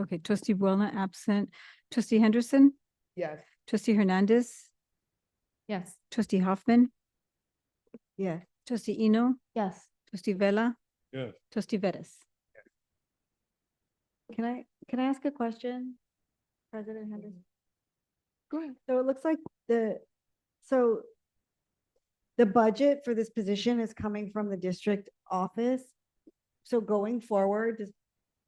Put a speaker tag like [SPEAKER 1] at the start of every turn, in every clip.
[SPEAKER 1] Okay, trustee Boulna absent. Trustee Henderson,
[SPEAKER 2] Yes.
[SPEAKER 1] trustee Hernandez,
[SPEAKER 3] Yes.
[SPEAKER 1] trustee Hoffman,
[SPEAKER 2] Yes.
[SPEAKER 1] trustee Eno,
[SPEAKER 3] Yes.
[SPEAKER 1] trustee Vella,
[SPEAKER 4] Yes.
[SPEAKER 1] trustee Vettis.
[SPEAKER 3] Can I, can I ask a question? President Henderson?
[SPEAKER 2] So it looks like the, so the budget for this position is coming from the district office. So going forward, does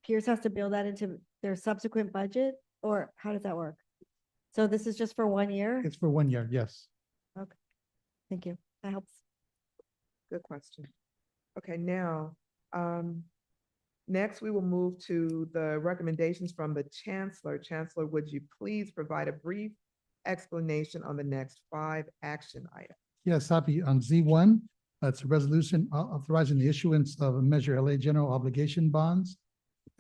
[SPEAKER 2] Pierce has to build that into their subsequent budget or how does that work? So this is just for one year?
[SPEAKER 5] It's for one year, yes.
[SPEAKER 2] Thank you. That helps.
[SPEAKER 6] Good question. Okay, now, um, next we will move to the recommendations from the chancellor. Chancellor, would you please provide a brief explanation on the next five action items?
[SPEAKER 5] Yes, happy. On Z one, that's a resolution au- authorizing the issuance of Measure LA General Obligation Bonds.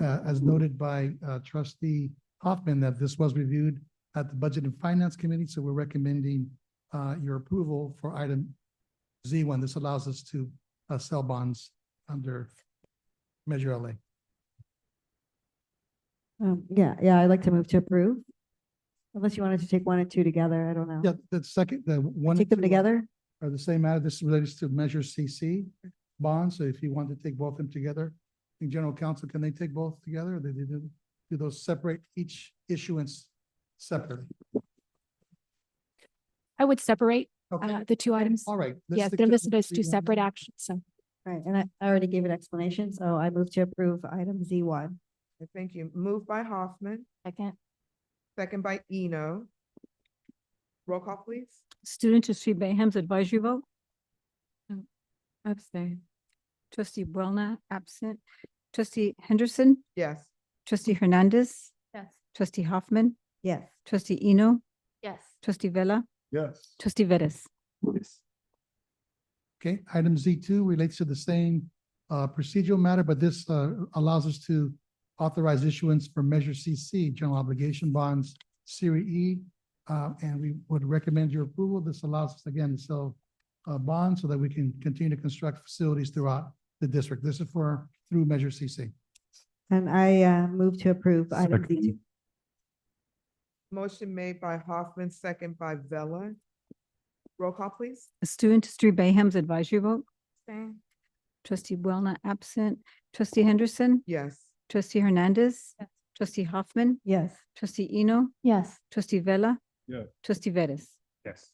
[SPEAKER 5] Uh, As noted by uh, trustee Hoffman, that this was reviewed at the Budget and Finance Committee, so we're recommending uh, your approval for item Z one. This allows us to uh, sell bonds under Measure LA.
[SPEAKER 2] Um, yeah, yeah, I'd like to move to approve. Unless you wanted to take one and two together, I don't know.
[SPEAKER 5] Yeah, the second, the one. and
[SPEAKER 2] Take them
[SPEAKER 5] two
[SPEAKER 2] together?
[SPEAKER 5] Are the same matter. This relates to Measure CC bonds. So if you want to take both of them together, I think general counsel, can they take both together? Or do they do, do those separate each issuance separately?
[SPEAKER 3] I would separate
[SPEAKER 5] Okay,
[SPEAKER 3] uh, the two items.
[SPEAKER 5] all right. let's
[SPEAKER 3] Yeah,
[SPEAKER 5] stick
[SPEAKER 3] they're
[SPEAKER 5] to
[SPEAKER 3] listed as two
[SPEAKER 5] Z1.
[SPEAKER 3] separate actions, so.
[SPEAKER 2] Right, and I I already gave an explanation, so I move to approve item Z one.
[SPEAKER 6] Thank you. Moved by Hoffman,
[SPEAKER 3] Second.
[SPEAKER 6] second by Eno. Roll call, please.
[SPEAKER 1] Student trustee Bayham's advisory vote,
[SPEAKER 3] Abstain.
[SPEAKER 1] trustee Boulna absent. Trustee Henderson,
[SPEAKER 6] Yes.
[SPEAKER 1] trustee Hernandez,
[SPEAKER 3] Yes.
[SPEAKER 1] trustee Hoffman,
[SPEAKER 2] Yes.
[SPEAKER 1] trustee Eno,
[SPEAKER 3] Yes.
[SPEAKER 1] trustee Vella,
[SPEAKER 4] Yes.
[SPEAKER 1] trustee Vettis.
[SPEAKER 5] Okay, item Z two relates to the same uh, procedural matter, but this uh, allows us to authorize issuance for Measure CC, General Obligation Bonds, Series E. uh, And we would recommend your approval. This allows us again to sell uh, bonds so that we can continue to construct facilities throughout the district. This is for, through Measure CC.
[SPEAKER 2] And I uh move to approve item Z two.
[SPEAKER 6] Motion made by Hoffman, second by Vella. Roll call, please.
[SPEAKER 1] Student trustee Bayham's advisory vote, trustee Boulna absent. Trustee Henderson,
[SPEAKER 6] Yes.
[SPEAKER 1] trustee Hernandez,
[SPEAKER 3] Yes.
[SPEAKER 1] trustee Hoffman,
[SPEAKER 2] Yes.
[SPEAKER 1] trustee Eno,
[SPEAKER 3] Yes.
[SPEAKER 1] trustee Vella.
[SPEAKER 4] Yeah.
[SPEAKER 1] Trustee Vettis.
[SPEAKER 4] Yes.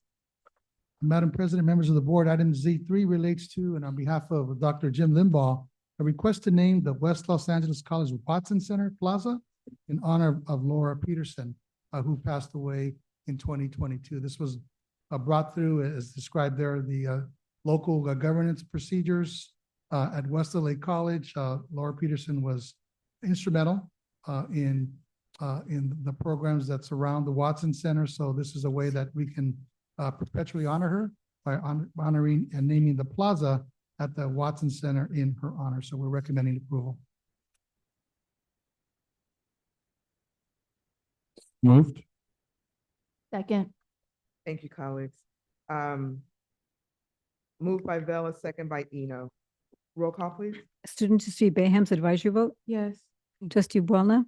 [SPEAKER 5] Madam President, members of the board, item Z three relates to, and on behalf of Dr. Jim Limbaugh, a request to name the West Los Angeles College Watson Center Plaza in honor of Laura Peterson, uh, who passed away in twenty twenty-two. This was uh, brought through as described there, the uh, local uh, governance procedures uh, at West LA College. Uh, Laura Peterson was instrumental uh, in, uh, in the programs that surround the Watson Center. So this is a way that we can uh, perpetually honor her by hon- honoring and naming the plaza at the Watson Center in her honor. So we're recommending approval.
[SPEAKER 4] Moved.
[SPEAKER 3] Second.
[SPEAKER 6] Thank you, colleagues. Um, moved by Vella, second by Eno. Roll call, please.
[SPEAKER 1] Student trustee Bayham's advisory vote,
[SPEAKER 3] Yes.
[SPEAKER 1] trustee Boulna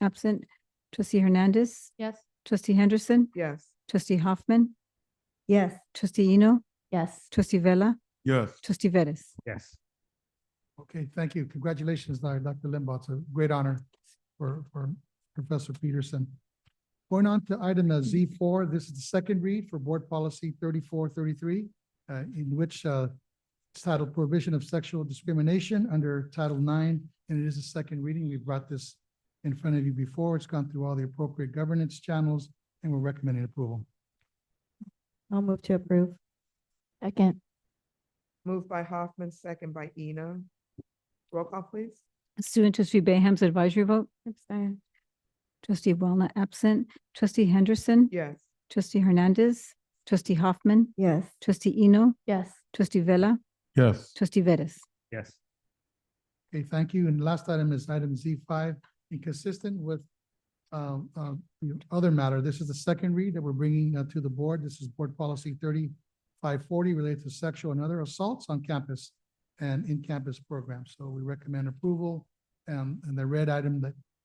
[SPEAKER 1] absent. Trustee Hernandez,
[SPEAKER 3] Yes.
[SPEAKER 1] trustee Henderson,
[SPEAKER 6] Yes.
[SPEAKER 1] trustee Hoffman,
[SPEAKER 2] Yes.
[SPEAKER 1] trustee Eno,
[SPEAKER 3] Yes.
[SPEAKER 1] trustee Vella,
[SPEAKER 4] Yes.
[SPEAKER 1] trustee Vettis.
[SPEAKER 4] Yes.
[SPEAKER 5] Okay, thank you. Congratulations, Dr. Limbaugh. It's a great honor for, for Professor Peterson. Going on to item uh, Z four, this is the second read for Board Policy thirty-four thirty-three, uh, in which, uh, it's titled Prohibition of Sexual Discrimination under Title Nine, and it is a second reading. We brought this in front of you before. It's gone through all the appropriate governance channels, and we're recommending approval.
[SPEAKER 2] I'll move to approve.
[SPEAKER 3] Second.
[SPEAKER 6] Moved by Hoffman, second by Eno. Roll call, please.
[SPEAKER 1] Student trustee Bayham's advisory vote,
[SPEAKER 3] Abstain.
[SPEAKER 1] trustee Boulna absent. Trustee Henderson,
[SPEAKER 6] Yes.
[SPEAKER 1] trustee Hernandez, trustee Hoffman,
[SPEAKER 2] Yes.
[SPEAKER 1] trustee Eno,
[SPEAKER 3] Yes.
[SPEAKER 1] trustee Vella,
[SPEAKER 4] Yes.
[SPEAKER 1] trustee Vettis.
[SPEAKER 4] Yes.
[SPEAKER 5] Okay, thank you. And last item is item Z five, inconsistent with um, uh, the other matter. This is the second read that we're bringing uh, to the board. This is Board Policy thirty-five forty related to sexual and other assaults on campus and in-campus programs. So we recommend approval. Um, And the red item that